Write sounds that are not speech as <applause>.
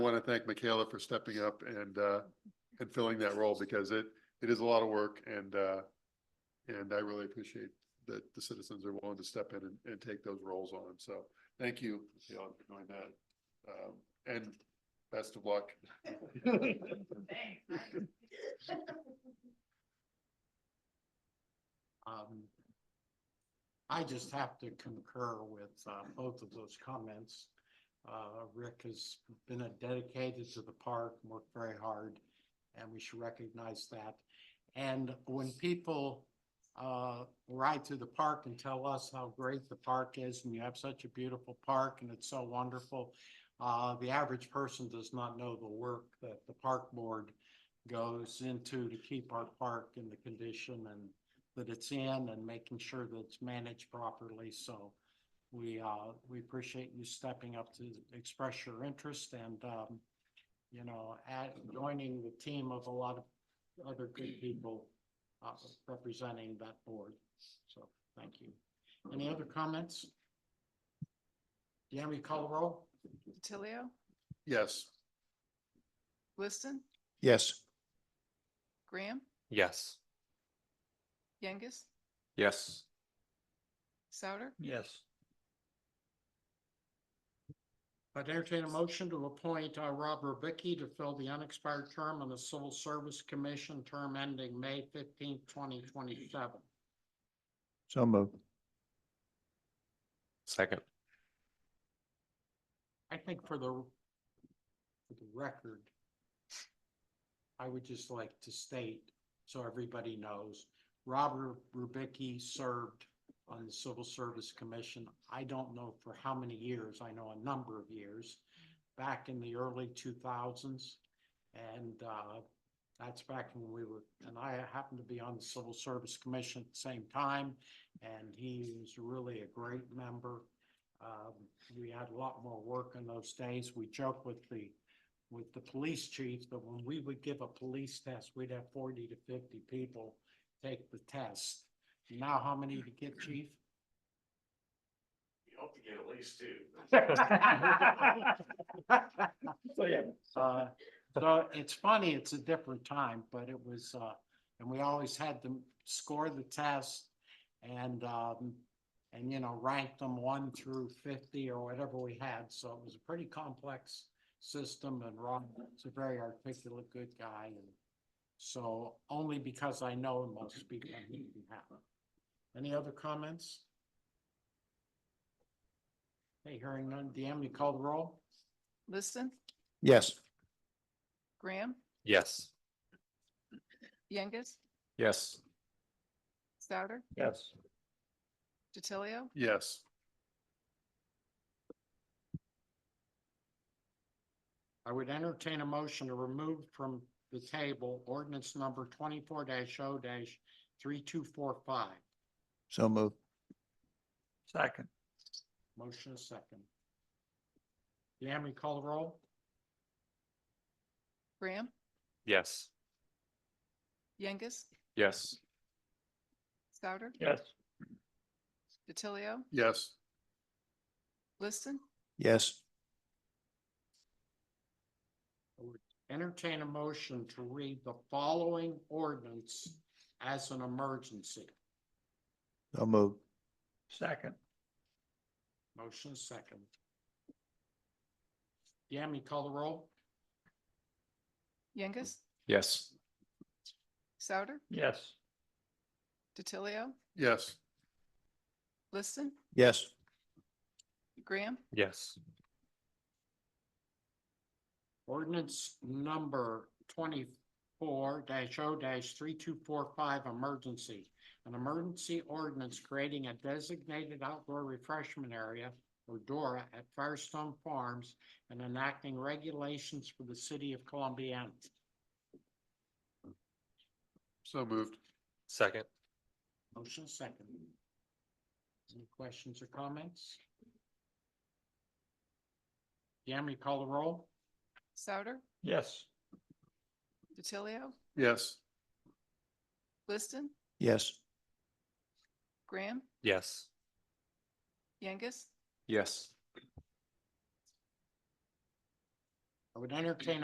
want to thank Michaela for stepping up and, uh, and filling that role because it, it is a lot of work and, uh, and I really appreciate that the citizens are willing to step in and, and take those roles on. So thank you, Michaela, for doing that. Um, and best of luck. Um, I just have to concur with uh, both of those comments. Uh, Rick has been a- dedicated to the park, worked very hard, and we should recognize that. And when people uh, ride through the park and tell us how great the park is, and you have such a beautiful park, and it's so wonderful, uh, the average person does not know the work that the park board goes into to keep our park in the condition and that it's in and making sure that it's managed properly. So we, uh, we appreciate you stepping up to express your interest and, um, you know, at, joining the team of a lot of other good people, uh, representing that board. So thank you. Any other comments? Yami, call the roll? DiTilio, Yes. Liston, Yes. Graham, Yes. Youngus, Yes. Souter, Yes. I'd entertain a motion to appoint uh, Rob Rubicki to fill the unexpired term on the Civil Service Commission, term ending May fifteenth, twenty twenty-seven. So moved. Second. I think for the, for the record, I would just like to state, so everybody knows, Robert Rubicki served on the Civil Service Commission. I don't know for how many years, I know a number of years, back in the early two thousands. And, uh, that's back when we were, and I happened to be on the Civil Service Commission at the same time. And he was really a great member. Um, we had a lot more work in those days. We joked with the, with the police chief that when we would give a police test, we'd have forty to fifty people take the test. Now how many to get, chief? You hope to get at least two. <laughs> So, yeah. Uh, so it's funny, it's a different time, but it was, uh, and we always had them score the test and, um, and, you know, rank them one through fifty or whatever we had, so it was a pretty complex system and Ron is a very articulate, good guy and so only because I know him, I'll speak on his behalf. Any other comments? Hey, hearing none, DM, you call the roll? Liston, Yes. Graham, Yes. Youngus, Yes. Souter, Yes. DiTilio, Yes. I would entertain a motion to remove from the table ordinance number twenty-four 0 three two four five. So moved. Second. Motion is second. Yami, call the roll? Graham, Yes. Youngus, Yes. Souter, Yes. DiTilio, Yes. Liston, Yes. Entertain a motion to read the following ordinance as an emergency. So moved. Second. Motion is second. Yami, call the roll? Youngus, Yes. Souter, Yes. DiTilio, Yes. Liston, Yes. Graham, Yes. Ordinance number twenty-four 0 three two four five, emergency. An emergency ordinance creating a designated outdoor refreshment area or DORA at Firestone Farms and enacting regulations for the city of Columbiana. So moved. Second. Motion second. Any questions or comments? Yami, call the roll? Souter, Yes. DiTilio, Yes. Liston, Yes. Graham, Yes. Youngus, Yes. I would entertain